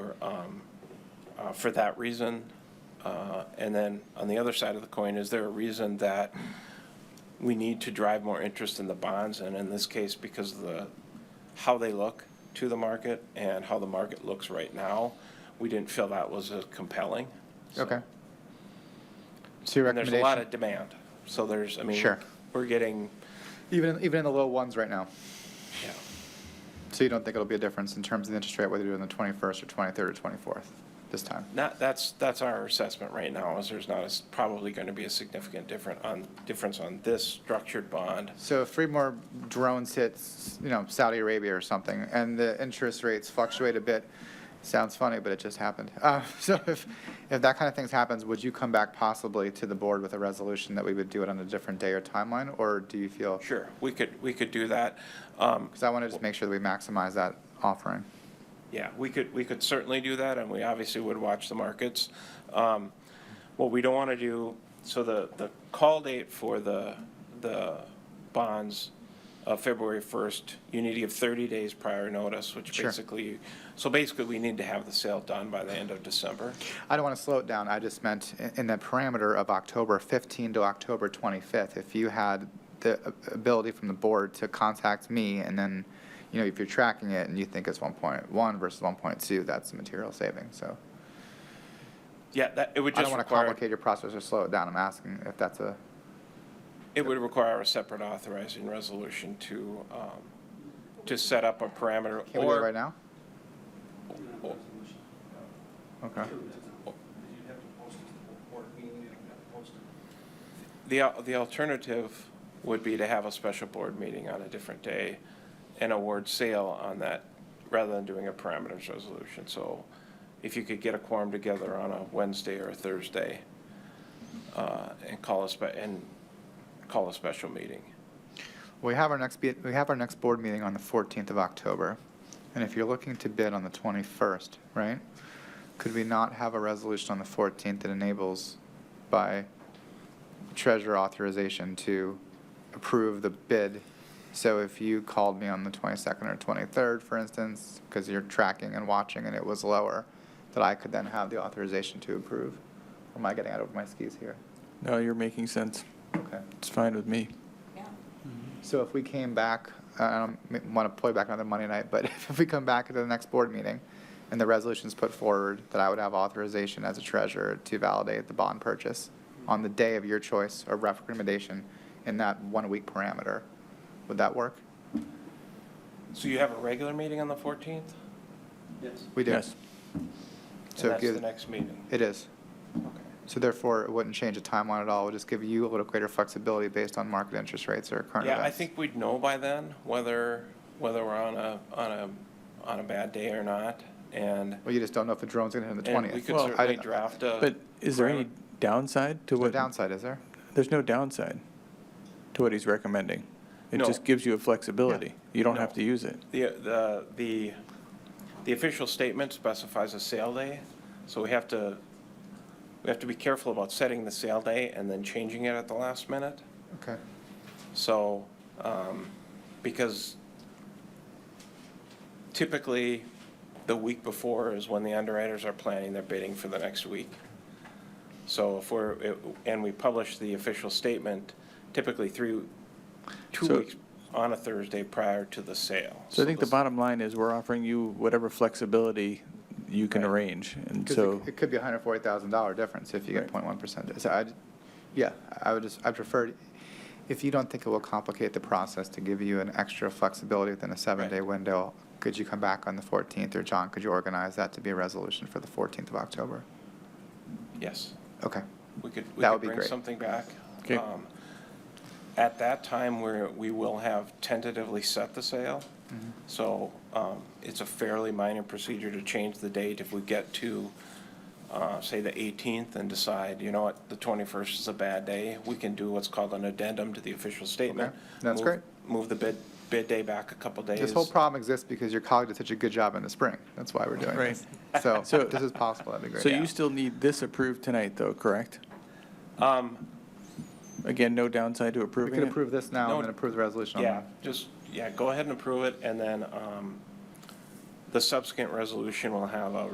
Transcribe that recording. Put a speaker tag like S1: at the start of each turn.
S1: uh, for that reason? Uh, And then, on the other side of the coin, is there a reason that we need to drive more interest in the bonds? And in this case, because of the, how they look to the market and how the market looks right now, we didn't feel that was uh, compelling. So-
S2: Okay. So your
S1: And there's a lot of
S2: recommendation,
S1: demand, so there's, I mean.
S2: Sure.
S1: We're getting,
S2: even, even in the low ones right now?
S1: yeah,
S2: So you don't think it'll be a difference in terms of the interest rate, whether you're doing the 21st or 23rd or 24th this time?
S1: not, that's, that's our assessment right now, is there's not, as- probably going to be a significant different on, difference on this structured bond.
S2: So if three more drones hit, you know, Saudi Arabia or something, and the interest rates fluctuate a bit, sounds funny, but it just happened. Uh, So if, if that kind of things happens, would you come back possibly to the board with a resolution that we would do it on a different day or timeline? Or do you feel,
S1: Sure, we could, we could do that. Um,
S2: because I want to just make sure that we maximize that offering.
S1: Yeah, we could, we could certainly do that, and we obviously would watch the markets. Um, What we don't want to do, so the, the call date for the, the bonds of February 1st, you need to give 30 days prior notice, which
S2: Sure.
S1: basically, so basically, we need to have the sale done by the end of December.
S2: I don't want to slow it down. I just meant i- in the parameter of October 15 to October 25th, if you had the a- ability from the board to contact me and then, you know, if you're tracking it and you think it's 1.1 versus 1.2, that's a material saving. So
S1: Yeah, that, it would
S2: I don't
S1: just
S2: want to
S1: require,
S2: complicate your process or slow it down. I'm asking if that's a,
S1: it would require a separate authorizing resolution to, um, to set up a parameter.
S2: can we do it
S1: or-
S2: right now?
S1: or-
S2: Okay.
S3: You'd have to post it to the board meeting, you'd have to post it.
S1: The, al- the alternative would be to have a special board meeting on a different day and award sale on that, rather than doing a parameters resolution. So if you could get a quorum together on a Wednesday or a Thursday, uh, and call a spe, and call a special meeting.
S2: We have our next, be- we have our next board meeting on the 14th of October, and if you're looking to bid on the 21st, right? Could we not have a resolution on the 14th that enables by treasurer authorization to approve the bid? So if you called me on the 22nd or 23rd, for instance, because you're tracking and watching and it was lower, that I could then have the authorization to approve? Or am I getting out over my skis here?
S4: No, you're making sense.
S2: Okay.
S4: It's fine with me.
S2: So if we came back, I don't want to play back another Monday night, but if we come back to the next board meeting and the resolution's put forward, that I would have authorization as a treasurer to validate the bond purchase on the day of your choice or ref recommendation in that one-week parameter. Would that work?
S1: So you have a regular meeting on the fourteenth?
S3: Yes.
S2: We do.
S4: Yes.
S2: So
S1: And that's
S2: give-
S1: the next meeting.
S2: It is.
S1: Okay.
S2: So therefore, it wouldn't change the timeline at all. It would just give you a little greater flexibility based on market interest rates or current events.
S1: Yeah, I think we'd know by then whether, whether we're on a, on a, on a bad day or not, and.
S2: Well, you just don't know if the drone's going to hit on the 20th.
S1: And we could
S4: Well, I
S1: certainly
S2: don't-
S1: draft a.
S4: But is there any
S1: parameter.
S4: downside to
S2: There's no
S4: what?
S2: downside, is there?
S4: There's no downside to what he's recommending. It
S1: No.
S4: just gives you a flexibility. You don't have
S1: No.
S4: to use it.
S1: The, the, the, the official statement specifies a sale day, so we have to, we have to be careful about setting the sale day and then changing it at the last minute.
S2: Okay.
S1: So, um, because typically, the week before is when the underwriters are planning their bidding for the next week. So if we're, and we publish the official statement typically through two
S4: So-
S1: weeks on a Thursday prior to the sale.
S4: So I think the
S1: this-
S4: bottom line is we're offering you whatever flexibility you can
S1: Right.
S4: arrange. And
S2: Because
S4: so,
S2: it could be a hundred forty thousand dollar difference if you get
S4: Right.
S2: point one percent. So I, yeah, I would just, I prefer, if you don't think it will complicate the process to give you an extra flexibility within a seven-day
S1: Right.
S2: window, could you come back on the fourteenth, or John, could you organize that to be a resolution for the fourteenth of October?
S1: Yes,
S2: Okay,
S1: we could, we
S2: That
S1: could
S2: would be
S1: bring
S2: great.
S1: something back.
S4: Okay.
S1: Um, At that time, we're, we will have tentatively set the sale. So um, it's a fairly minor procedure to change the date if we get to, uh, say, the 18th and decide, you know what, the 21st is a bad day. We can do what's called an addendum to the official statement.
S2: Okay, that's
S1: Move-
S2: great.
S1: Move the bid, bid day back a couple days.
S2: this whole problem exists because your colleague did such a good job in the spring, that's why we're doing this. So,
S4: So-
S2: if this is possible, that'd be great.
S4: so you still need this approved tonight though, correct?
S1: Um,
S4: Again, no downside to
S2: We
S4: approving
S2: could
S4: it?
S2: approve this now
S1: No,
S2: and then approve the resolution on
S1: Yeah,
S2: that.
S1: just, yeah, go ahead and approve it, and then um, the subsequent resolution will have a